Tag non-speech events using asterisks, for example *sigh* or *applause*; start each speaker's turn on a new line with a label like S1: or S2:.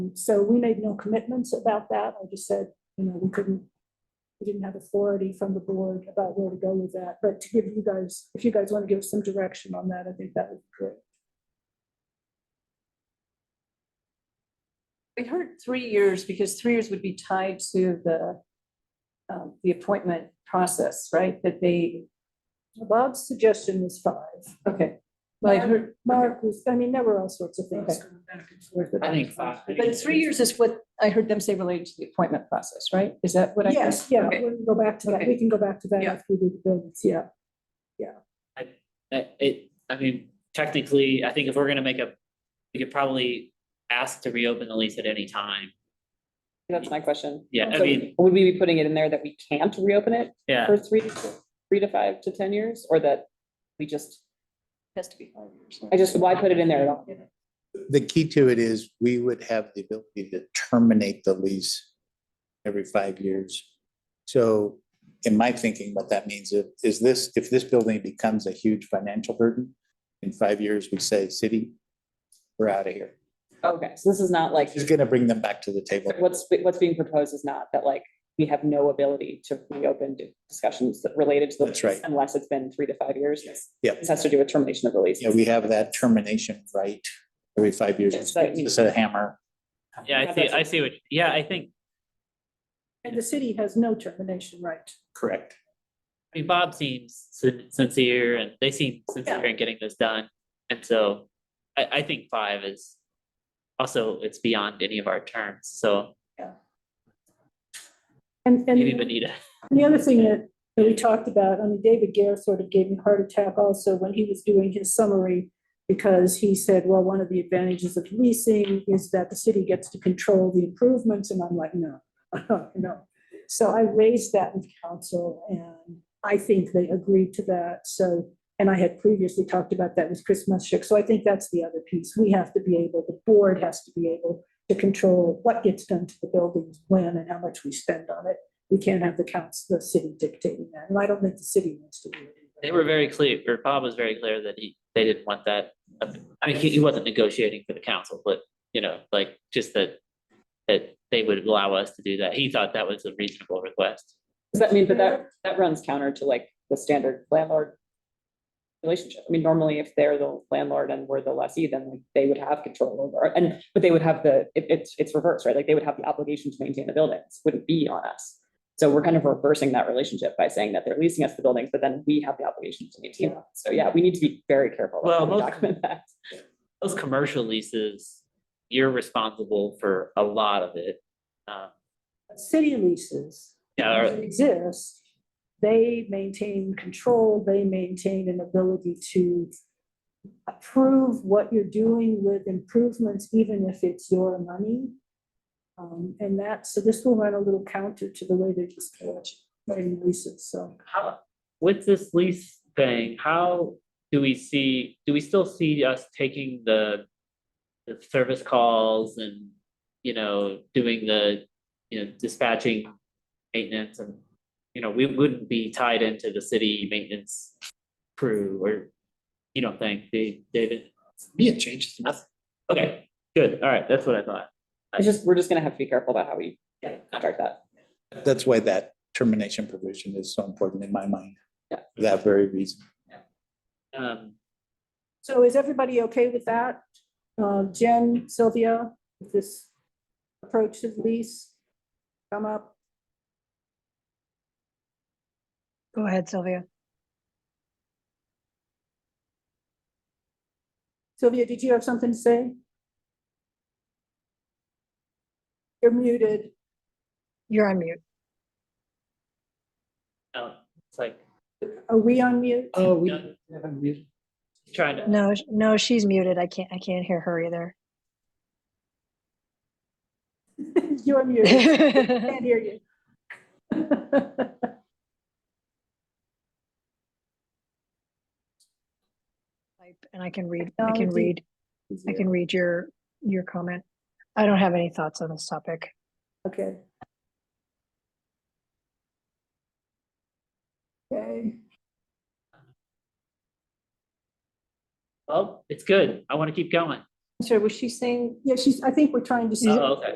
S1: Um, so we made no commitments about that. I just said, you know, we couldn't, we didn't have authority from the board about where to go with that. But to give you guys, if you guys want to give some direction on that, I think that would be great.
S2: We heard three years because three years would be tied to the, um, the appointment process, right? That they,
S1: Bob's suggestion was five.
S2: okay. Well, I
S1: Mark-
S2: heard,
S1: Mark was, I mean, there were all sorts of things
S2: Okay.
S1: going back and forth. about
S3: I think
S1: that.
S3: five.
S2: but three years is what I heard them say related to the appointment process, right? Is that what I? heard?
S1: Yes, yeah,
S2: Okay.
S1: we'll go back to that. We
S2: Okay.
S1: can go back to that
S2: Yeah.
S1: after we do the buildings, yeah.
S3: Uh, It, I mean, technically, I think if we're gonna make a, we could probably ask to reopen the lease at any time.
S4: That's my question.
S3: Yeah, I
S4: So
S3: mean-
S4: Would we be putting it in there that we can't reopen it
S3: Yeah,
S4: for three, three to five to ten years, or that we just,
S2: Has to be five years.
S4: I just, why put it in there at all?
S5: The key to it is we would have the ability to terminate the lease every five years. So in my thinking, what that means is- is this, if this building becomes a huge financial burden, in five years, we say, city, we're out of here.
S4: Okay, so this is not like,
S5: It's gonna bring them back to the table.
S4: what's, what's being proposed is not that like, we have no ability to reopen discussions that related to the.
S5: That's right.
S4: lease Unless it's been three to five years.
S5: Yep.
S4: This has to do with termination of the lease.
S5: Yeah, we have that termination right every five years.
S4: It's like-
S5: It's a hammer.
S3: yeah, I see, I see what, yeah, I think,
S1: And the city has no termination right.
S5: Correct.
S3: I mean, Bob seems sin- sincere and they seem sincere in getting this done. And so I, I think five is also, it's beyond any of our terms, so
S1: And, and.
S3: maybe Benita.
S1: And The other thing that that we talked about, I mean, David Gare sort of gave me a heart attack also when he was doing his summary because he said, well, one of the advantages of leasing is that the city gets to control the improvements. And I'm like, no, *laughs* no. So I raised that with council and I think they agreed to that. So, and I had previously talked about that with Chris Muschek. So I think that's the other piece. We have to be able, the board has to be able to control what gets done to the buildings, when and how much we spend on it we can't have the council, the city dictating that, and I don't think the city wants to do it.
S3: They were very clear, or Bob was very clear that he, they didn't want that. up- I mean, he, he wasn't negotiating for the council, but, you know, like, just that, that they would allow us to do that. He thought that was a reasonable request.
S4: Does that mean, but that, that runs counter to like the standard landlord relationship? I mean, normally if they're the landlord and we're the lessee, then like they would have control over, it. and, but they would have the, it, it's, it's reversed, right? Like they would have the obligation to maintain the buildings, wouldn't be on us. So we're kind of reversing that relationship by saying that they're leasing us the buildings, but then we have the obligation to maintain them. So yeah, we need to be very careful. about how
S3: Well,
S4: we
S3: most-
S4: Document that.
S3: Those commercial leases, you're responsible for a lot of it. Um,
S1: City leases
S3: Yeah, or-
S1: that exist, they maintain control, they maintain an ability to approve what you're doing with improvements, even if it's your money. Um, and that, so this will run a little counter to the way they're just writing leases, so.
S3: how, with this lease thing, how do we see, do we still see us taking the, the service calls and, you know, doing the, you know, dispatching maintenance and, you know, we wouldn't be tied into the city maintenance crew or, you don't think, Da- David?
S5: Yeah, changes.
S3: Okay, good, all right, that's what I thought.
S4: It's just, we're just gonna have to be careful about how we
S3: Yeah.
S4: contract that.
S5: That's why that termination provision is so important in my mind.
S4: Yeah.
S5: For that very reason.
S3: Um,
S1: So is everybody okay with that? Uh, Jen, Sylvia, with this approach to the lease come up?
S6: Go ahead, Sylvia.
S1: Sylvia, did you have something to say? You're muted.
S6: You're on mute.
S3: oh, it's like,
S1: Are we on mute?
S3: oh, we. Trying to,
S6: No, sh- no, she's muted. I can't, I can't hear her either.
S1: *laughs*
S6: *laughs*
S1: You're muted. Can't hear you.
S6: Type, And I can read,
S1: No,
S6: I can
S1: do-
S6: read, I can read your, your comment. I don't have any thoughts on this topic.
S1: Okay. Okay,
S3: well, it's good, I want to keep going.
S2: I'm sorry, was she saying
S1: Yeah, she's, I think we're trying to.
S3: Oh, okay.